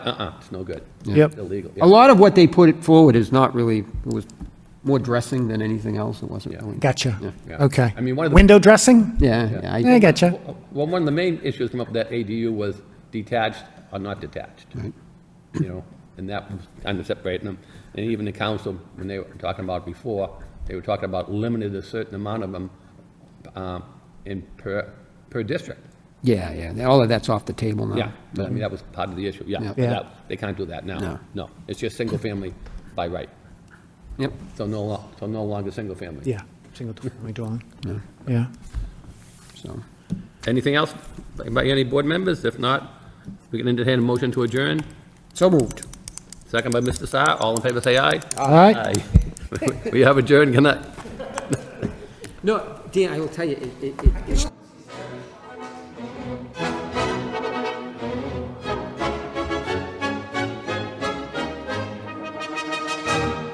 Uh-uh, it's no good. Yep. Illegal, A yeah. lot of what they put forward is not really, it was more dressing than anything else. It wasn't really. Gotcha. yeah. Okay. I mean, one of the- Window dressing? Yeah, yeah. I I- gotcha. Well, one of the main issues come up with that ADU was detached or not detached. You know, and that was kind of separating them. And even the council, when they were talking about before, they were talking about limited a certain amount of them um, in per, per district. Yeah, yeah. All of that's off the table now. Yeah, but I mean, that was part of the issue, yeah. Yeah. Yeah. that- They can't do that now. No. No, it's just single family by right. Yep. So no, lo- so no longer single family. Yeah, single-family dwelling. Yeah. So, Anything else by any board members? If not, we can entertain a motion to adjourn. so moved. Second by Mr. Saar. All in favor, say aye. All right. Aye. We have adjourned. Good night. No, Dan, I will tell you, it, it, it-